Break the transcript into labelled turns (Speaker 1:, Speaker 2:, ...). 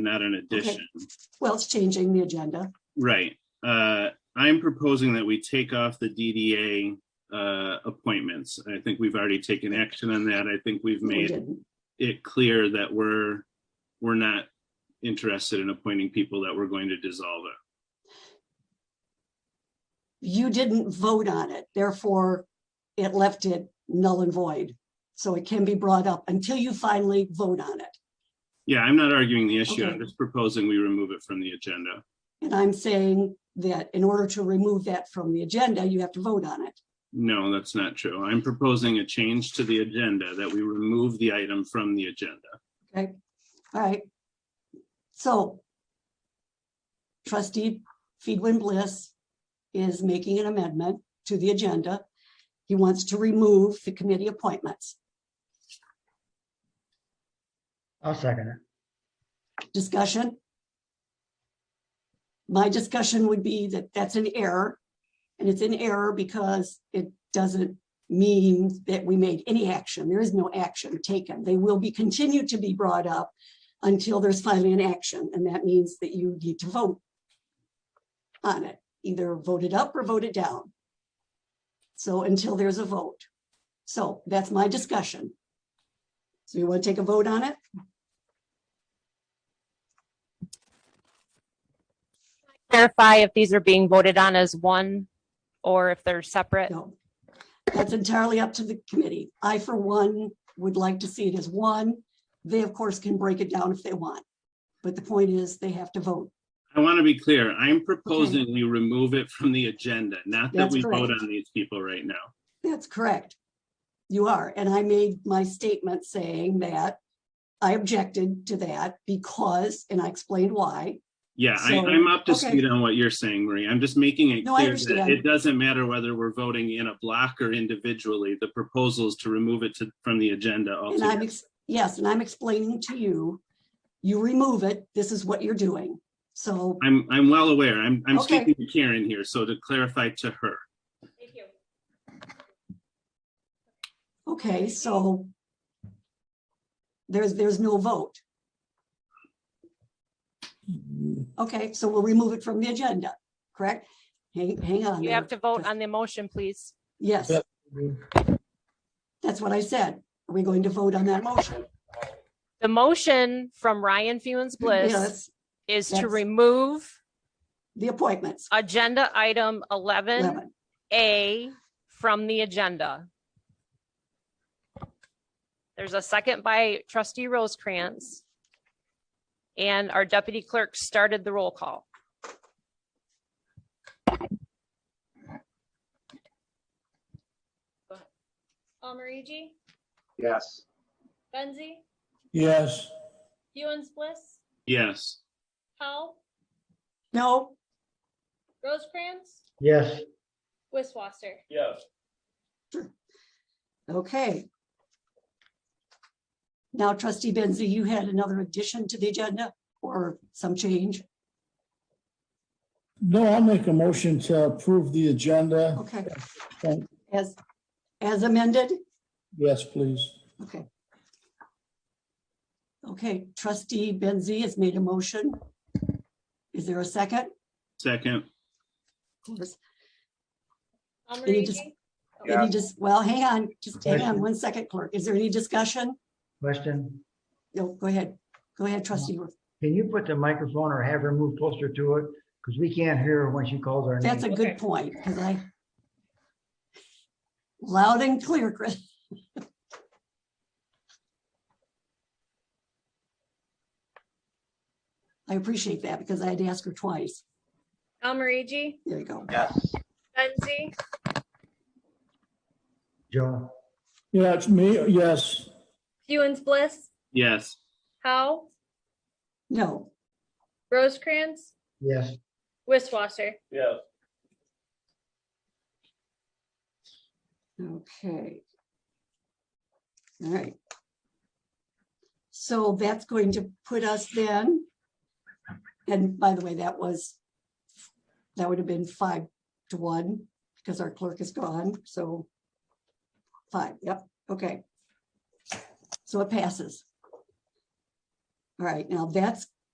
Speaker 1: not an addition.
Speaker 2: Well, it's changing the agenda.
Speaker 1: Right. Uh, I'm proposing that we take off the DDA uh, appointments. I think we've already taken action on that. I think we've
Speaker 2: We
Speaker 1: made
Speaker 2: didn't.
Speaker 1: it clear that we're, we're not interested in appointing people that we're going to dissolve it.
Speaker 2: You didn't vote on it, therefore it left it null and void. So it can be brought up until you finally vote on it.
Speaker 1: Yeah, I'm not arguing the issue. I'm
Speaker 2: Okay.
Speaker 1: just proposing we remove it from the agenda.
Speaker 2: And I'm saying that in order to remove that from the agenda, you have to vote on it.
Speaker 1: No, that's not true. I'm proposing a change to the agenda, that we remove the item from the agenda.
Speaker 2: Okay, all right. So trustee Feedwin Bliss is making an amendment to the agenda. He wants to remove the committee appointments.
Speaker 3: I'll second it.
Speaker 2: Discussion? My discussion would be that that's an error. And it's an error because it doesn't mean that we made any action. There is no action taken. They will be continued to be brought up until there's finally an action, and that means that you need to vote on it, either vote it up or vote it down. So until there's a vote. So that's my discussion. So you want to take a vote on it?
Speaker 4: clarify if these are being voted on as one or if they're separate?
Speaker 2: No. That's entirely up to the committee. I, for one, would like to see it as one. They, of course, can break it down if they want. But the point is, they have to vote.
Speaker 1: I want to be clear. I'm proposing we remove it from the agenda, not that
Speaker 2: That's
Speaker 1: we vote
Speaker 2: correct.
Speaker 1: on these people right now.
Speaker 2: That's correct. You are, and I made my statement saying that I objected to that because, and I explained why.
Speaker 1: Yeah, I,
Speaker 2: So,
Speaker 1: I'm up to
Speaker 2: okay.
Speaker 1: speed on what you're saying, Marie. I'm just making it
Speaker 2: No, I
Speaker 1: clear that
Speaker 2: understand.
Speaker 1: it doesn't matter whether we're voting in a block or individually. The proposal is to remove it to, from the agenda
Speaker 2: And I'm,
Speaker 1: altogether.
Speaker 2: ex- yes, and I'm explaining to you, you remove it, this is what you're doing. So
Speaker 1: I'm, I'm well aware. I'm, I'm
Speaker 2: Okay.
Speaker 1: speaking to Karen here, so to clarify to her.
Speaker 2: Okay, so there's, there's no vote. Okay, so we'll remove it from the agenda, correct? Hang, hang on.
Speaker 4: You
Speaker 2: there.
Speaker 4: have to vote on the motion, please.
Speaker 2: Yes,
Speaker 3: Yep.
Speaker 2: that's what I said. Are we going to vote on that motion?
Speaker 4: The motion from Ryan Fewens Bliss
Speaker 2: Yes,
Speaker 4: is to
Speaker 2: that's-
Speaker 4: remove
Speaker 2: The appointments.
Speaker 4: agenda item eleven
Speaker 2: Eleven.
Speaker 4: A from the agenda. There's a second by trustee Rosecrans. And our deputy clerk started the roll call.
Speaker 5: Almarigi,
Speaker 6: Yes.
Speaker 5: Benzie,
Speaker 3: Yes.
Speaker 5: Hewens Bliss,
Speaker 1: Yes,
Speaker 5: Powell,
Speaker 2: No,
Speaker 5: Rosecrans,
Speaker 3: Yes.
Speaker 5: Wiswaster.
Speaker 6: Yes.
Speaker 2: okay. Now trustee Benzie, you had another addition to the agenda or some change?
Speaker 7: No, I'll make a motion to approve the agenda.
Speaker 2: Okay,
Speaker 7: Thank-
Speaker 2: as, as amended?
Speaker 7: Yes, please.
Speaker 2: Okay. Okay, trustee Benzie has made a motion. Is there a second?
Speaker 1: second,
Speaker 2: Of course. Any dis-
Speaker 5: Almarigi,
Speaker 2: Any just, well, hang on, just hang on
Speaker 3: Question.
Speaker 2: one second, clerk. Is there any discussion?
Speaker 3: Question,
Speaker 2: No, go ahead. Go ahead, trustee. Ruth.
Speaker 3: can you put the microphone or have her move closer to it? Because we can't hear her when she calls our
Speaker 2: That's a
Speaker 3: name.
Speaker 2: good point, because I loud and clear, Chris. I appreciate that because I had to ask her twice.
Speaker 5: Almarigi,
Speaker 2: There you go.
Speaker 6: Yes.
Speaker 5: Benzie,
Speaker 3: Joe,
Speaker 7: Yeah, it's me, yes.
Speaker 5: Hewens Bliss,
Speaker 1: yes,
Speaker 5: Powell,
Speaker 2: No,
Speaker 5: Rosecrans,
Speaker 3: yes,
Speaker 5: Wiswaster.
Speaker 6: Yes.
Speaker 2: Okay. All right. So that's going to put us then. And by the way, that was, that would have been five to one because our clerk is gone, so. Five, yep, okay. So it passes. All right, now that's